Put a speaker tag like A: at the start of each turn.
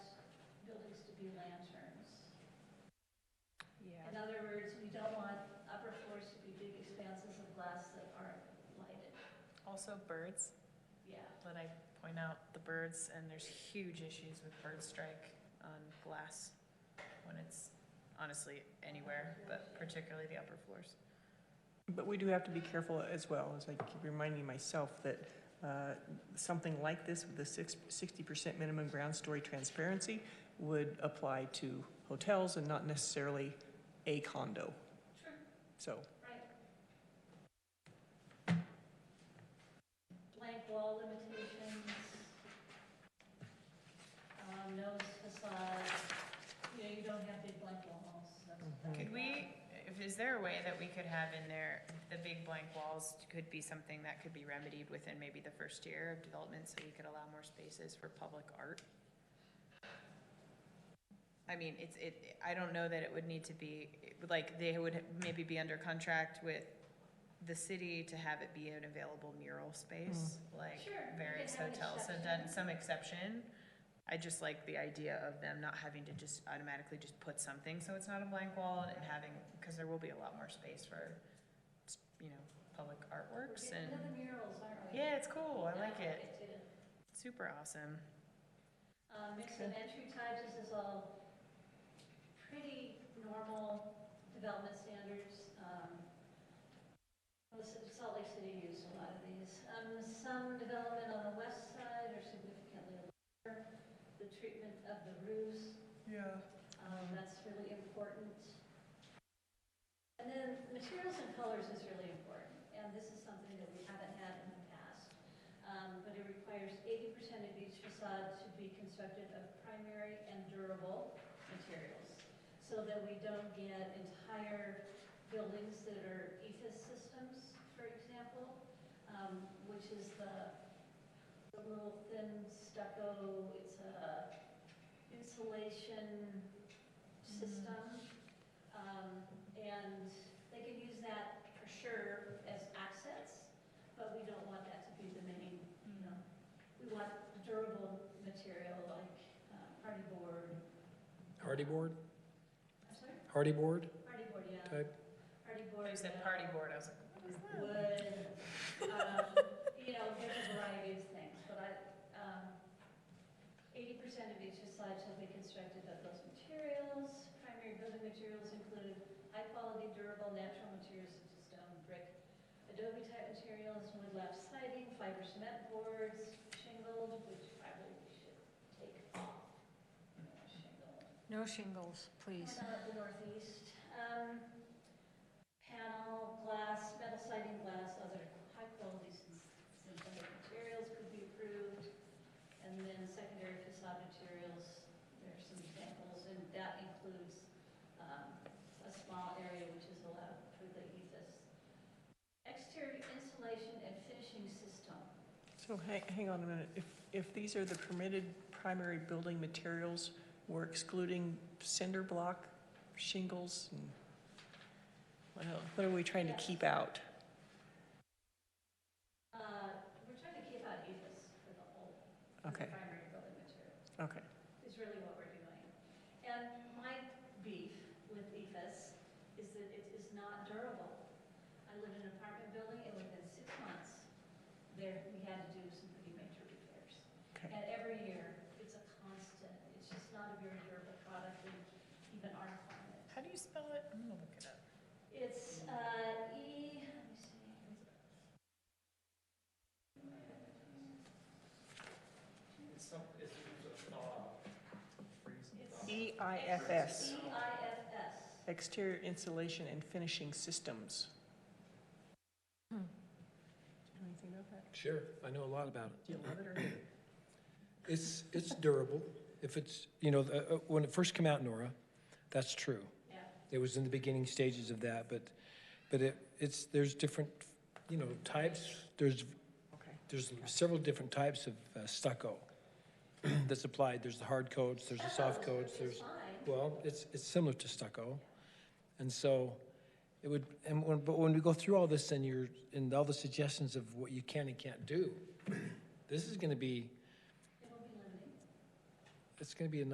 A: don't want upper floors to be big expanses of glass that aren't lighted,
B: Also birds,
A: yeah.
B: let I point out the birds, and there's huge issues with bird strike on glass when it's honestly anywhere, but particularly the upper floors.
C: But we do have to be careful as well, as I keep reminding myself that uh, something like this with a six- 60% minimum ground story transparency would apply to hotels and not necessarily a condo.
A: Sure.
C: So,
A: Right. Blank wall limitations. Um, no facade, you know, you don't have big blank wall homes, that's. that's
B: Could we, if, is there a way that we could have in there, the big blank walls could be something that could be remedied within maybe the first year of development, so you could allow more spaces for public art? I mean, it's, it, I don't know that it would need to be, like, they would maybe be under contract with the city to have it be an available mural space, like
A: Sure, you
B: various
A: could have an
B: hotels have
A: exception.
B: done, some exception. I just like the idea of them not having to just automatically just put something, so it's not a blank wall, and having, because there will be a lot more space for, you know, public
A: We're
B: artworks
A: getting
B: and,
A: into the murals, aren't we?
B: yeah, it's cool, I like it,
A: too.
B: super awesome.
A: Uh, mix of entry types this is all pretty normal development standards. Um, well, S- Salt Lake City used a lot of these. Um, some development on the west side are significantly lower. The treatment of the roofs,
C: yeah,
A: um, that's really important. And then materials and colors is really important, and this is something that we haven't had in the past. Um, But it requires eighty percent of each facade to be constructed of primary and durable materials, so that we don't get entire buildings that are E ethos systems, for example, um, which is the the little thin stucco, it's a insulation system. Um, and they can use that for sure as assets, but we don't want that to be the main, you know. We want durable material like uh, hardy board,
D: Hardy board,
A: I'm sorry,
D: hardy board
A: hardy board, yeah,
D: type?
A: hardy board.
B: You said
A: uh,
B: party board, I was like, what is that?
A: wood, um, you know, there's a variety of things, but I, um, eighty percent of each slide shall be constructed of those materials. Primary building materials include high-quality durable natural materials such as stone, brick, adobe type materials, wood lap siding, fiber cement boards, shingled, which probably we should take off. you know, Shingled.
E: No shingles, please.
A: How about the northeast? Um, Panel, glass, metal siding, glass, other high-quality syn- synthetic materials could be approved. And then secondary facade materials, there are some examples, and that includes um, a small area which is allowed for the ethos. Exterior insulation and finishing system.
C: so hang, hang on a minute. If, if these are the permitted primary building materials, we're excluding cinder block, shingles, and what else? What are we trying to
A: Yes.
C: keep out?
A: Uh, We're trying to keep out ethos for the whole, for the
C: Okay,
A: primary building material.
C: okay.
A: is really what we're doing. And my beef with EFS is that it is not durable. I lived in an apartment building, and within six months, there, we had to do some pretty major repairs.
C: Okay.
A: And every year, it's a constant, it's just not a very durable product in even our climate.
B: How do you spell it? I'm gonna look it up.
A: It's, uh, E, let me see.
C: EIFS,
A: E-I-F-S.
C: exterior insulation and finishing systems. Do you know anything about that?
D: Sure, I know a lot about it.
C: Do you love it or hate it?
D: It's, it's durable. If it's, you know, uh, uh, when it first came out, Nora, that's true.
A: Yeah.
D: It was in the beginning stages of that, but, but it, it's, there's different, you know, types. There's,
C: Okay.
D: there's several different types of uh, stucco that's applied. There's the hard coats, there's the soft coats, there's.
A: It's fine.
D: Well, it's, it's similar to stucco. And so it would, and when, but when we go through all this and you're, and all the suggestions of what you can and can't do, this is gonna be,
A: It'll be limiting.
D: it's gonna be a